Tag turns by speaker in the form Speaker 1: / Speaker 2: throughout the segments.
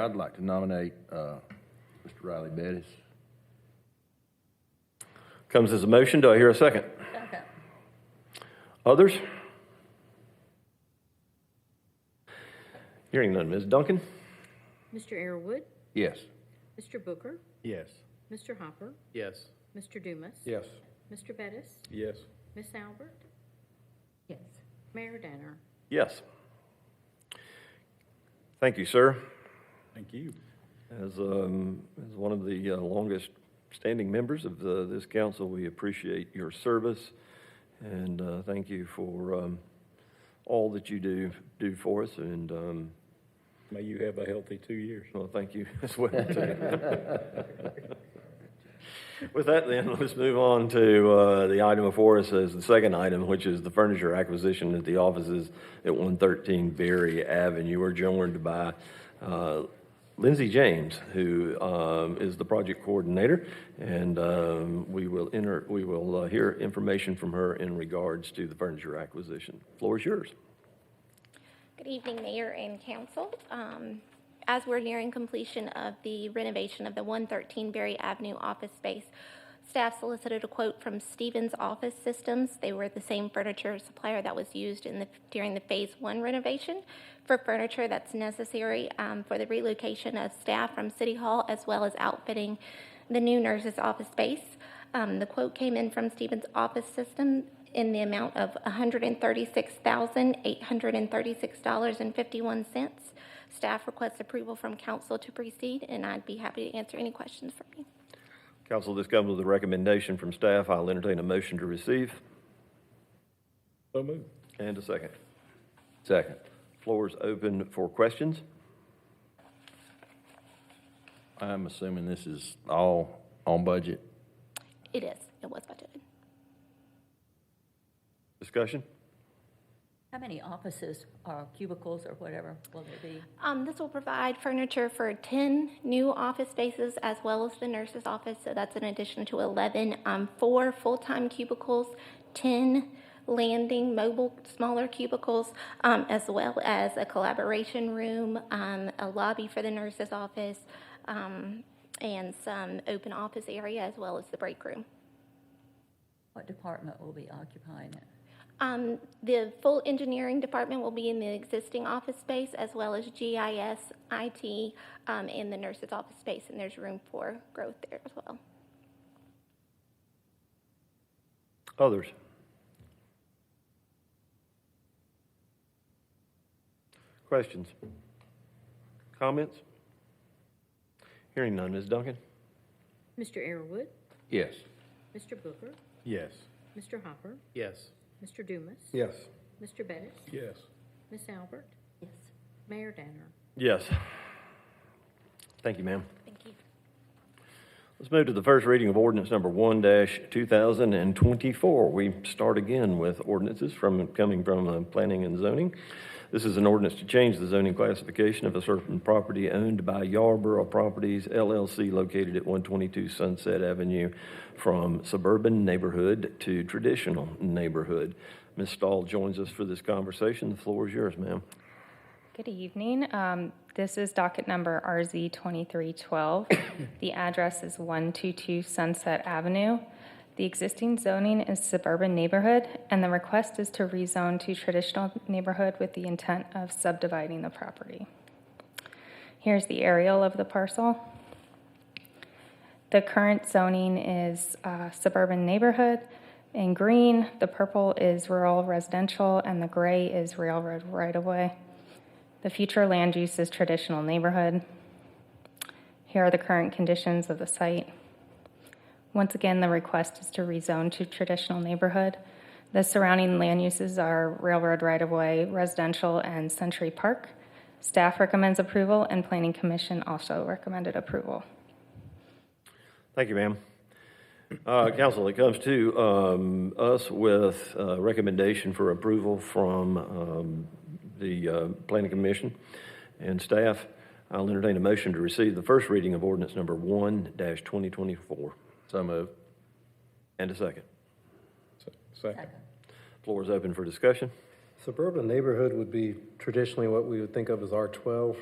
Speaker 1: I'd like to nominate uh, Mr. Riley Bettis.
Speaker 2: Comes as a motion. Do I hear a second?
Speaker 3: Second.
Speaker 2: Others? Hearing none. Ms. Duncan?
Speaker 3: Mr. Airwood,
Speaker 1: Yes.
Speaker 3: Mr. Booker,
Speaker 1: Yes.
Speaker 3: Mr. Hopper,
Speaker 4: Yes.
Speaker 3: Mr. Dumas.
Speaker 1: Yes.
Speaker 3: Mr. Bettis,
Speaker 4: Yes.
Speaker 3: Miss Albert. Yes. Mayor Danner.
Speaker 2: Yes. Thank you, sir.
Speaker 4: Thank you.
Speaker 2: As, um, as one of the uh, longest standing members of the, this council, we appreciate your service and uh, thank you for um, all that you do do for us. And um,
Speaker 4: May you have a healthy two years.
Speaker 2: well, thank you as well. too. With that, then let's move on to uh, the item before us as the second item, which is the furniture acquisition at the offices at 113 Berry Avenue. We're joined by uh, Lindsey James, who um, is the project coordinator, and um, we will enter. We will uh, hear information from her in regards to the furniture acquisition. Floor is yours.
Speaker 5: Good evening, Mayor and Council. Um, As we're nearing completion of the renovation of the 113 Berry Avenue office space, staff solicited a quote from Stevens Office Systems. They were the same furniture supplier that was used in the, during the Phase 1 renovation for furniture that's necessary um, for the relocation of staff from City Hall as well as outfitting the new nurse's office space. Um, the quote came in from Stevens Office System in the amount of $136,836.51. Staff requests approval from council to proceed, and I'd be happy to answer any questions from you.
Speaker 2: Council, this comes with a recommendation from staff. I'll entertain a motion to receive.
Speaker 4: So moved.
Speaker 2: And a second.
Speaker 1: Second.
Speaker 2: Floor is open for questions.
Speaker 1: I'm assuming this is all on budget.
Speaker 5: It is, it was budgeted.
Speaker 2: Discussion?
Speaker 6: How many offices or cubicles or whatever will there be?
Speaker 5: Um, This will provide furniture for 10 new office spaces as well as the nurse's office, so that's an addition to 11. Um, Four full-time cubicles, 10 landing mobile smaller cubicles, um, as well as a collaboration room, um, a lobby for the nurse's office, um, and some open office area as well as the break room.
Speaker 6: What department will be occupying it?
Speaker 5: Um, The full engineering department will be in the existing office space, as well as GIS, IT, um, and the nurse's office space, and there's room for growth there as well.
Speaker 2: Others? Questions? Comments? Hearing none. Ms. Duncan?
Speaker 3: Mr. Airwood,
Speaker 1: Yes.
Speaker 3: Mr. Booker,
Speaker 4: Yes.
Speaker 3: Mr. Hopper,
Speaker 4: Yes.
Speaker 3: Mr. Dumas.
Speaker 1: Yes.
Speaker 3: Mr. Bettis,
Speaker 4: Yes.
Speaker 3: Miss Albert,
Speaker 6: Yes.
Speaker 3: Mayor Danner.
Speaker 2: Yes. Thank you, ma'am.
Speaker 5: Thank you.
Speaker 2: Let's move to the first reading of ordinance number one two thousand and twenty-four. We start again with ordinances from, coming from uh, planning and zoning. This is an ordinance to change the zoning classification of a certain property owned by Yarborough Properties LLC located at one twenty-two Sunset Avenue from suburban neighborhood to traditional neighborhood. Ms. Stahl joins us for this conversation. The floor is yours, ma'am.
Speaker 7: Good evening. Um, This is docket number RZ 2312. The address is 122 Sunset Avenue. The existing zoning is suburban neighborhood, and the request is to rezone to traditional neighborhood with the intent of subdividing the property. Here's the aerial of the parcel. The current zoning is uh, suburban neighborhood in green, the purple is rural residential, and the gray is railroad right-of-way. The future land use is traditional neighborhood. Here are the current conditions of the site. Once again, the request is to rezone to traditional neighborhood. The surrounding land uses are railroad right-of-way, residential, and Century Park. Staff recommends approval, and Planning Commission also recommended approval.
Speaker 2: Thank you, ma'am. Uh, Council, it comes to um, us with a recommendation for approval from um, the uh, Planning Commission and staff. I'll entertain a motion to receive the first reading of ordinance number 1-2024.
Speaker 1: So moved.
Speaker 2: And a second.
Speaker 4: Second.
Speaker 2: Floor is open for discussion.
Speaker 8: Suburban neighborhood would be traditionally what we would think of as R12.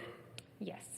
Speaker 7: Yes.